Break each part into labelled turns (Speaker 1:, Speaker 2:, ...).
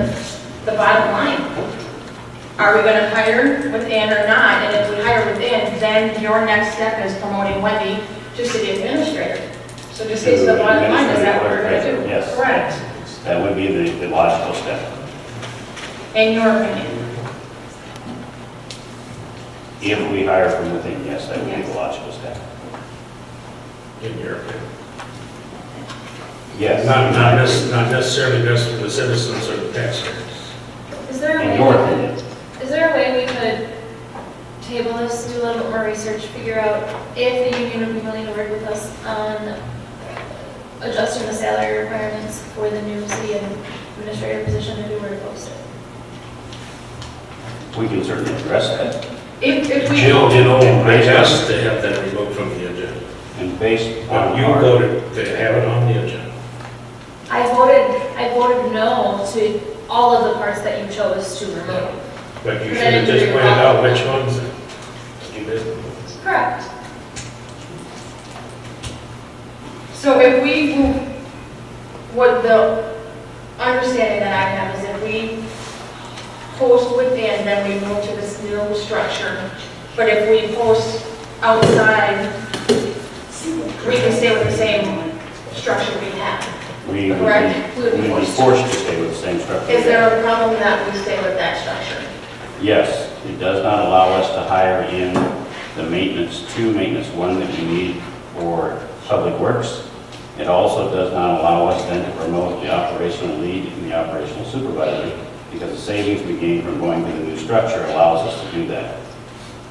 Speaker 1: that's the bottom line. Are we gonna hire within or not? And if we hire within, then your next step is promoting Wendy to city administrator. So just get to the bottom line, is that what we're gonna do?
Speaker 2: Yes.
Speaker 1: Correct,
Speaker 2: That would be the the logical step.
Speaker 1: in your opinion.
Speaker 2: If we hire from within, yes, that would be the logical step.
Speaker 3: in your opinion.
Speaker 2: Yes.
Speaker 3: Not, not necess- not necessarily best for the citizens or the taxpayers.
Speaker 4: Is there
Speaker 2: In
Speaker 4: a
Speaker 2: your
Speaker 4: way,
Speaker 2: opinion.
Speaker 4: is there a way we could table this, do a little bit more research, figure out if the union would be willing to work with us on adjusting the salary requirements for the new city administrator position if we were to post it?
Speaker 2: We can certainly address that.
Speaker 1: If, if we.
Speaker 3: Jill, you
Speaker 2: Oh,
Speaker 3: know, I asked to have that removed from the agenda.
Speaker 2: And based
Speaker 3: But
Speaker 2: on
Speaker 3: you
Speaker 2: our-
Speaker 3: voted to have it on the agenda.
Speaker 4: I voted, I voted no to all of the parts that you chose to remove.
Speaker 3: But you should have just pointed out which ones you did.
Speaker 4: Correct.
Speaker 1: So if we, move- what the understanding that I have is if we post within, then we move to this new structure. But if we post outside, we can stay with the same structure we have.
Speaker 2: We would
Speaker 1: Correct.
Speaker 2: be,
Speaker 1: We would be
Speaker 2: we would be
Speaker 1: forced.
Speaker 2: forced to stay with the same structure.
Speaker 1: Is there a problem that we stay with that structure?
Speaker 2: Yes, it does not allow us to hire in the maintenance two, maintenance one that we need for public works. It also does not allow us then to promote the operational lead and the operational supervisor because the savings we gain from going to the new structure allows us to do that.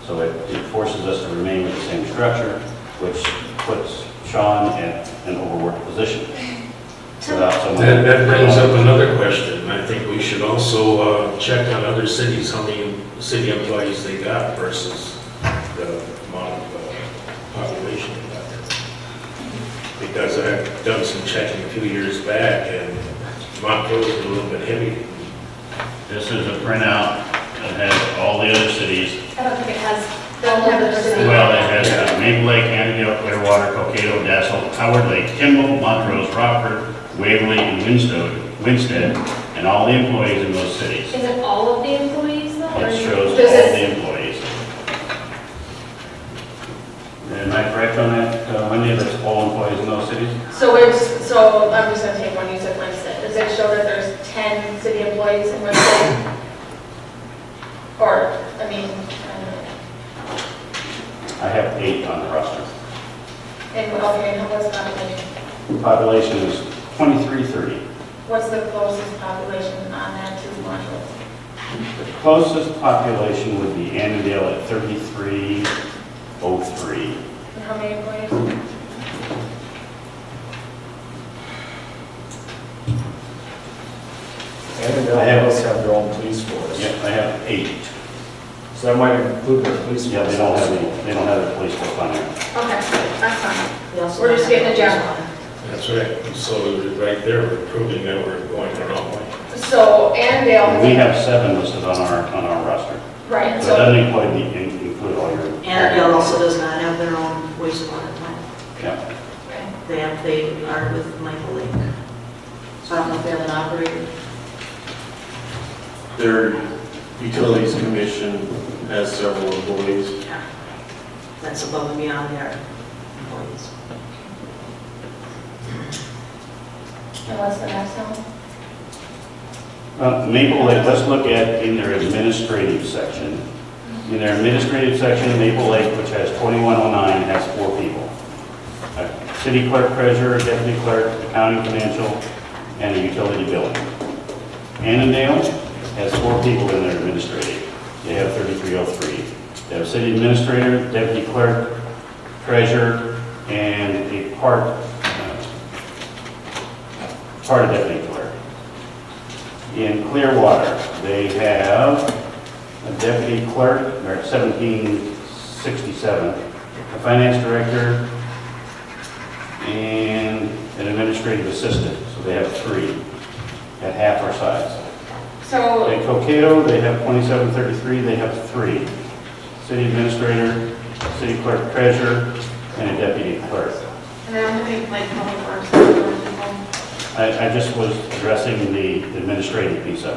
Speaker 2: So it it forces us to remain with the same structure, which puts Sean at an overworked position. Without someone-
Speaker 3: That, that brings up another question. I think we should also uh, check on other cities, how many city employees they got versus the amount of uh, population they got. Because I've done some checking a few years back, and Montrose is a little bit heavy.
Speaker 5: This is a printout that has all the other cities.
Speaker 4: I don't think it has,
Speaker 1: Don't have the percentage.
Speaker 5: Well, it has uh, Maple Lake, Annandale, Clearwater, Cocato, Dassel, Howard Lake, Kimball, Montrose, Rockford, Waverly, and Winstead, Winstead, and all the employees in those cities.
Speaker 4: is it all of the employees though? or-
Speaker 5: It shows all
Speaker 1: Does it-
Speaker 5: the employees.
Speaker 2: Am I correct on that, uh, Wendy, that's all employees in those cities?
Speaker 1: So it's, so I'm just gonna take one, you said Winston. Does it show that there's 10 city employees in Winston? Or, I mean, I don't know.
Speaker 2: I have eight on the roster.
Speaker 1: And what- okay, and what's population?
Speaker 2: Population is 2330.
Speaker 1: What's the closest population on that to Montrose?
Speaker 2: The closest population would be Annandale at 3303.
Speaker 1: And how many employees?
Speaker 6: And uh, they also have their own police force.
Speaker 2: Yep, they have eight.
Speaker 6: So that might include their police force.
Speaker 2: Yeah, they don't have, any- they don't have the police force on there.
Speaker 1: Okay, that's fine. We're just getting a general.
Speaker 3: That's right. So right there, we're proving that we're going the wrong way.
Speaker 1: So Annandale,
Speaker 2: We have seven listed on our, on our roster.
Speaker 1: right,
Speaker 2: But it
Speaker 1: so,
Speaker 2: doesn't include, the- include all your...
Speaker 7: Annandale also does not have their own wastewater plant.
Speaker 2: Yeah.
Speaker 7: They have, they are with Michael Lake. So I don't know if they have an operator.
Speaker 8: Their utilities commission has several employees.
Speaker 7: That's above and beyond their employees.
Speaker 1: and what's the next one?
Speaker 2: Uh, Maple Lake, let's look at in their administrative section. In their administrative section, Maple Lake, which has 2109, has four people. A City clerk, treasurer, deputy clerk, accounting financial, and a utility billing. Annandale has four people in their administrative. They have 3303. They have city administrator, deputy clerk, treasurer, and a part, uh, part of deputy clerk. In Clearwater, they have a deputy clerk, or 1767, a finance director, and an administrative assistant, so they have three at half our size.
Speaker 1: So,
Speaker 2: In Cocato, they have 2733, they have three. City administrator, city clerk treasurer, and a deputy clerk.
Speaker 1: and then how many, like, public works?
Speaker 2: I I just was addressing the administrative piece of it.